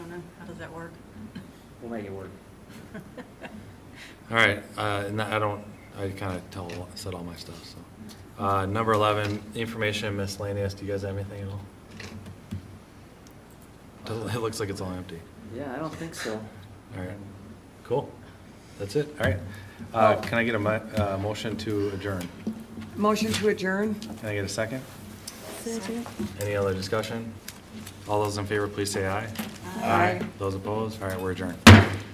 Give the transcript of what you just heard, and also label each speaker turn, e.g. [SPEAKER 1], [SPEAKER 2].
[SPEAKER 1] that work?
[SPEAKER 2] We'll make it work.
[SPEAKER 3] All right, uh, and I don't, I kind of tell, said all my stuff, so. Uh, Number 11, information miscellaneous, do you guys have anything at all? Doesn't- It looks like it's all empty.
[SPEAKER 2] Yeah, I don't think so.
[SPEAKER 3] All right, cool. That's it, all right. Uh, Can I get a mo- uh, motion to adjourn?
[SPEAKER 4] Motion to adjourn?
[SPEAKER 3] Can I get a second? Any other discussion? All those in favor, please say aye.
[SPEAKER 4] Aye.
[SPEAKER 3] Those opposed? All right, we're adjourned.